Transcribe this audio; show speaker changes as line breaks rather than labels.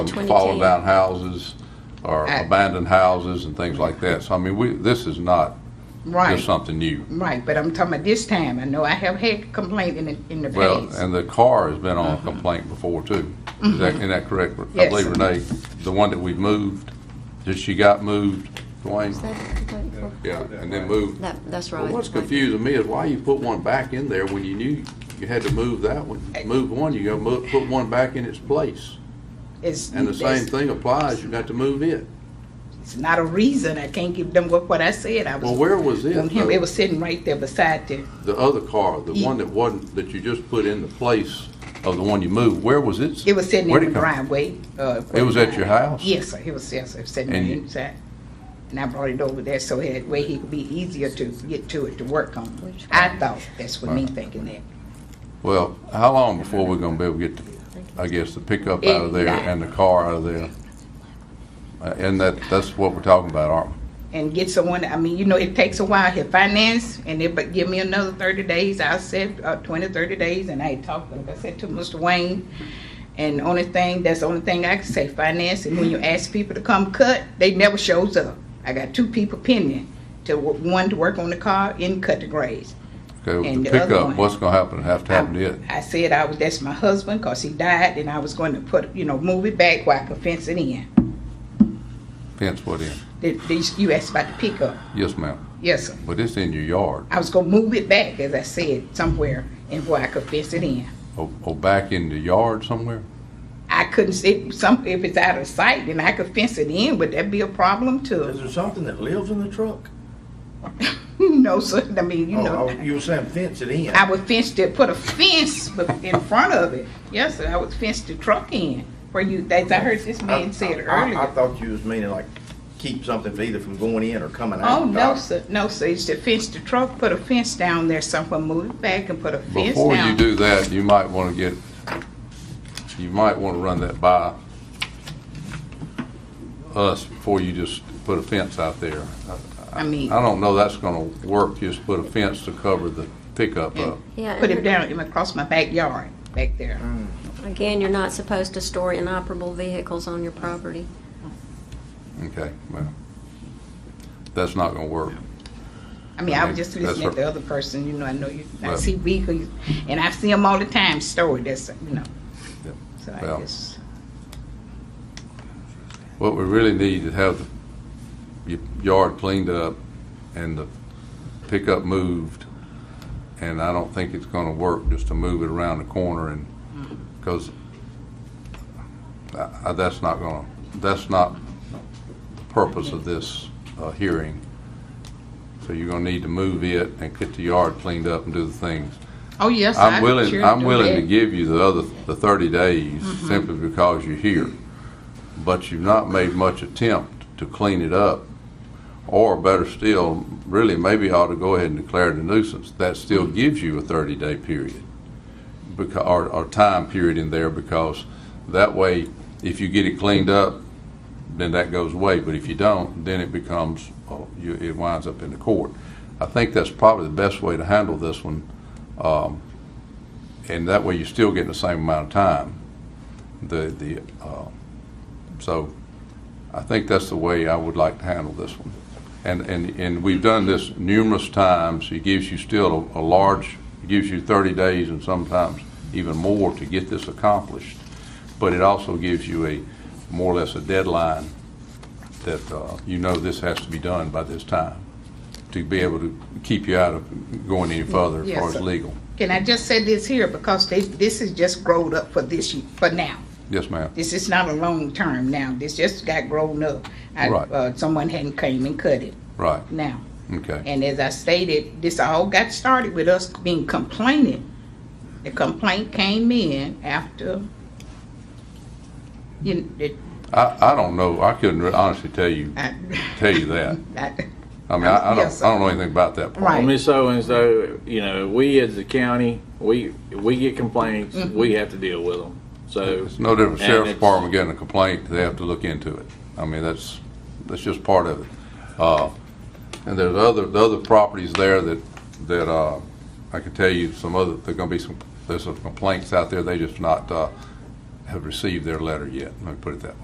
fallen
2010.
Um, down houses or
Right.
abandoned houses and things like that. So I mean, we, this is not
Right,
just something new.
right, but I'm talking about this time. I know I have had complaint in the, in the
Well,
past.
and the car has been on complaint before too. Is that, isn't that correct? I
Mm-hmm. Yes.
believe Renee, the one that we moved, that she got moved, Dwayne?
Is that what you're waiting for?
Yeah, and then moved.
That, that's
But
right.
what's confusing me is why you put one back in there when you knew you had to move that one, move one, you're gonna mo- put one back in its place.
It's-
And the same
it's-
thing applies, you got to move it.
It's not a reason. I can't give them what, what I said. I was.
Well, where was it?
on him.
though?
It was sitting right there beside the,
The other car, the
Ye-
one that wasn't, that you just put in the place of the one you moved, where was it?
it was sitting
Where'd
in the
it come-
driveway. uh,
It was at your house?
Yes, sir. It was, yes, sir, sitting
And
right
you-
inside. And I brought it over there so that way he could be easier to get to it to work on.
Which
I
one?
thought, that's what me thinking that.
Well, how long before we're gonna be able to get, the- I guess, the pickup out of there and the car out of there? Uh, And that, that's what we're talking about, aren't we?
And get someone, I mean, you know, it takes a while to finance and it, but give me another thirty days. I said, uh, twenty, thirty days and I talked, like I said, to Mr. Wayne. And the only thing, that's the only thing I can say, finance, and when you ask people to come cut, they never shows up. I got two people pending, to, wo- one to work on the car and cut the grades.
Okay,
And
the
the other
pickup,
one.
what's gonna happen, have to happen to it?
I said I was, that's my husband, cause he died, and I was going to put, you know, move it back where I could fence it in.
Fence what in?
The- these- You asked about the pickup,
Yes, ma'am,
yes, sir.
but it's in your yard,
I was gonna move it back, as I said, somewhere, and where I could fence it in.
or, or oh, back in the yard somewhere?
I couldn't, see some, if it's out of sight, then I could fence it in, would that be a problem
Is
too?
there something that lives in the truck?
No, sir, I mean, you
Oh,
know,
I- You were saying fence it in.
I would fence it, put a fence bef- in front of it, yes, sir, I would fence the truck in, where you, as I heard this man said
I- I- I
earlier.
thought you was meaning like keep something either from going in or coming out.
Oh, no, sir, no, sir, it's to fence the truck, put a fence down there somewhere, move it back and put a fence
Before you
down.
do that, you might wanna get, you might wanna run that by us before you just put a fence out there.
I mean,
I don't know that's gonna work, just put a fence to cover the pickup up.
Yeah,
put it
and
down across my backyard, back there.
Mm.
again, you're not supposed to store inoperable vehicles on your property.
Okay, well, that's not gonna work.
I mean, I was just
That's
listening
right.
to the other person, you know, I know you, I
Right.
see vehicles, and I see them all the time, stored, that's, you know.
Yep.
So I
Well.
just,
What we really need is have the y- yard cleaned up and the pickup moved. And I don't think it's gonna work just to move it around the corner and, because that's not gonna, that's not the purpose of this uh, hearing. So you're gonna need to move it and get the yard cleaned up and do the things.
oh, yes. I
I'm
sure
willing, I'm
do
willing to
that.
give you the other, the thirty days
Mm-hmm.
simply because you're here. But you've not made much attempt to clean it up. Or better still, really maybe ought to go ahead and declare it a nuisance. That still gives you a thirty day period. Because, or, or time period in there because that way, if you get it cleaned up, then that goes away. But if you don't, then it becomes, oh, you, it winds up in the court. I think that's probably the best way to handle this one. Um, and that way you're still getting the same amount of time. The, the, uh, so I think that's the way I would like to handle this one. And, and, and we've done this numerous times. It gives you still a, a large, it gives you thirty days and sometimes even more to get this accomplished. But it also gives you a, more or less a deadline that, uh, you know this has to be done by this time to be able to keep you out of going any further as
Yes,
far as
sir.
legal.
Can I just say this here, because they, this is just growed up for this, year- for now.
Yes, ma'am.
This is not a long term now, this just got grown up. I-
Right.
Uh, someone hadn't came and cut it
Right,
now.
okay.
And as I stated, this all got started with us being complaining. The complaint came in after, you, know, it,
I, I don't know, I couldn't re- honestly tell you,
I,
tell you that.
I,
I mean, I, I
Yes,
don't,
sir.
I don't know anything about that part.
Right.
Well, Ms. Owens, though, you know, we as the county, we, we get complaints, we have to deal with them. So,
It's no different,
And
sheriff's
it's-
department getting a complaint, they have to look into it. I mean, that's, that's just part of it. Uh, and there's other, the other properties there that, that, uh, I can tell you some other, there're gonna be some, there's some complaints out there, they just not, uh, have received their letter yet, let me put it that way.